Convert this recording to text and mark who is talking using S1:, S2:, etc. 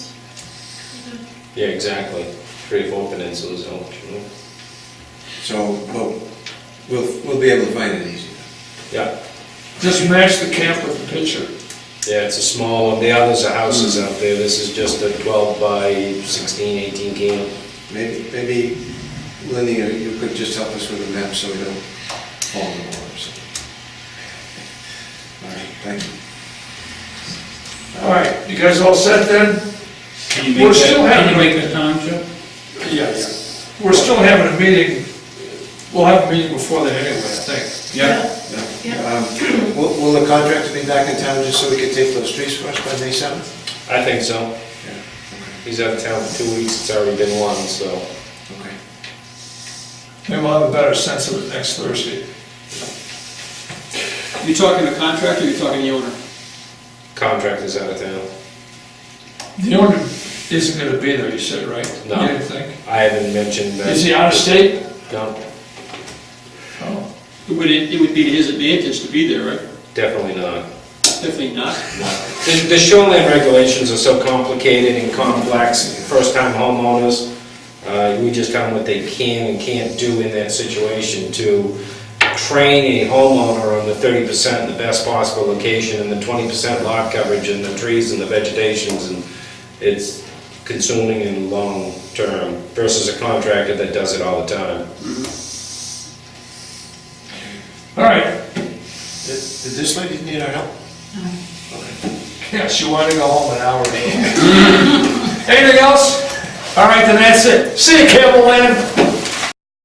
S1: Yeah, exactly. Three of openings, so there's no, you know.
S2: So, well, we'll, we'll be able to find it easy.
S1: yeah.
S3: Just match the camp with the picture.
S1: Yeah, it's a small one. The others are houses
S3: Hmm.
S1: out there. This is just a 12 by 16, 18 camp.
S2: Maybe, maybe Lenny, or you could just help us with a map so we don't fall in the water. so. All right, thank you.
S3: All right, you guys all set then?
S4: Can you
S3: We're
S4: make
S3: still
S4: that, can
S3: having-
S4: you make the time, Joe?
S3: Yes. We're still having a meeting, we'll have a meeting before that anyway, I think.
S4: Yeah.
S5: Yeah.
S2: Um, Will, will the contractor be back in town just so we can take those trees for us by May seventh?
S1: I think so. He's out of town for two weeks. It's already been one, so.
S2: Okay.
S3: Then we'll have a better sense of it next Thursday.
S4: You talking to contractor, or you talking to the owner?
S1: Contractor's out of town.
S3: The owner isn't gonna be there, you said, right?
S1: No.
S3: You didn't think?
S1: I haven't mentioned that.
S3: Is he out of state?
S1: No,
S3: Oh.
S4: It would, it would be to his advantage to be there, right?
S1: definitely not.
S4: Definitely not.
S1: The the shoreline regulations are so complicated and complex, first-time homeowners, uh, we just tell them what they can and can't do in that situation to train a homeowner on the 30% in the best possible location and the 20% lot coverage and the trees and the vegetations, and it's consuming in the long term versus a contractor that does it all the time.
S3: All right,
S2: Did did this lady need our help?
S3: yeah, she wanted to go home an hour ago. Anything else? All right, then that's it. See you, Campbell Land.